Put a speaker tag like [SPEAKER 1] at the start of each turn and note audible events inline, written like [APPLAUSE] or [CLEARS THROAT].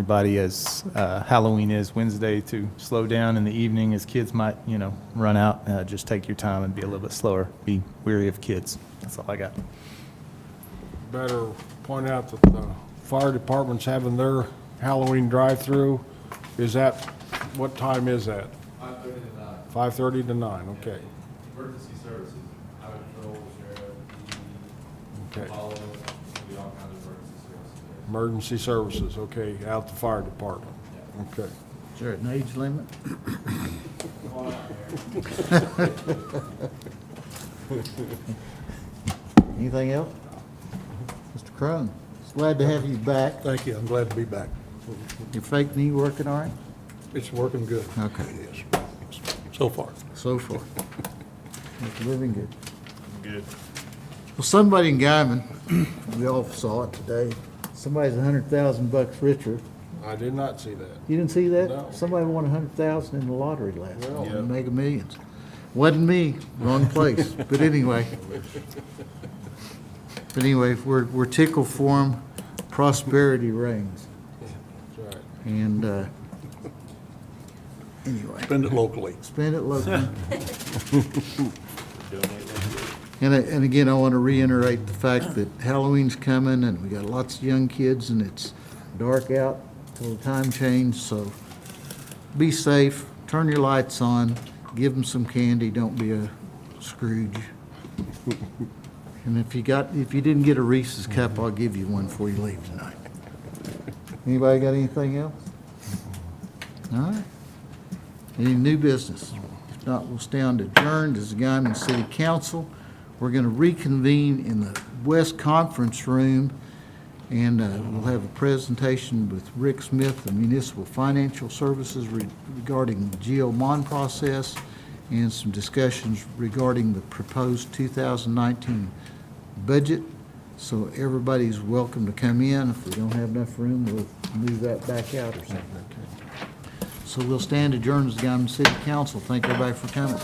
[SPEAKER 1] everybody as uh, Halloween is Wednesday to slow down in the evening as kids might, you know, run out. Uh, Just take your time and be a little bit slower. Be weary of kids. That's all I got.
[SPEAKER 2] better point out that the fire department's having their Halloween drive-through. Is that, what time is that?
[SPEAKER 3] Five thirty to nine,
[SPEAKER 2] 5:30 to 9, okay.
[SPEAKER 3] emergency services, highway patrol,
[SPEAKER 2] Okay.
[SPEAKER 3] sheriff, all of, we all kinds of emergency services there.
[SPEAKER 2] Emergency services, okay, out the fire department. Okay.
[SPEAKER 4] Is there an age limit? Anything else? Mr. Crone, it's glad to have you back.
[SPEAKER 5] Thank you, I'm glad to be back.
[SPEAKER 4] Your fake knee working all right?
[SPEAKER 5] It's working good.
[SPEAKER 4] Okay.
[SPEAKER 5] It is, so far.
[SPEAKER 4] So far. It's living good. Good. Well, somebody in Guyman, [CLEARS THROAT] we all saw it today, somebody's a hundred thousand bucks richer.
[SPEAKER 2] I did not see that.
[SPEAKER 4] You didn't see that?
[SPEAKER 2] No.
[SPEAKER 4] Somebody won a hundred thousand in the lottery last
[SPEAKER 2] Well.
[SPEAKER 4] night, mega millions. Wasn't me, wrong place, but anyway. But anyway, we're, we're tickled for 'em. prosperity reigns,
[SPEAKER 2] That's right.
[SPEAKER 4] and, uh, anyway.
[SPEAKER 5] Spend it locally.
[SPEAKER 4] Spend it locally. [LAUGHS] And, I- and again, I want to reiterate the fact that Halloween's coming and we got lots of young kids and it's dark out till the time change, so be safe, turn your lights on, give them some candy, don't be a Scrooge. And if you got, if you didn't get a Reese's cup, I'll give you one before you leave tonight. Anybody got anything else? All right. Any new business? If not, we'll stand adjourned as the Guymon City Council. We're going to reconvene in the West Conference Room, and uh, we'll have a presentation with Rick Smith, the Municipal Financial Services re- regarding the GO bond process, and some discussions regarding the proposed 2019 budget. So everybody's welcome to come in. If we don't have enough room, we'll move that back out or something. So we'll stand adjourned as the Guymon City Council. Thank everybody for coming.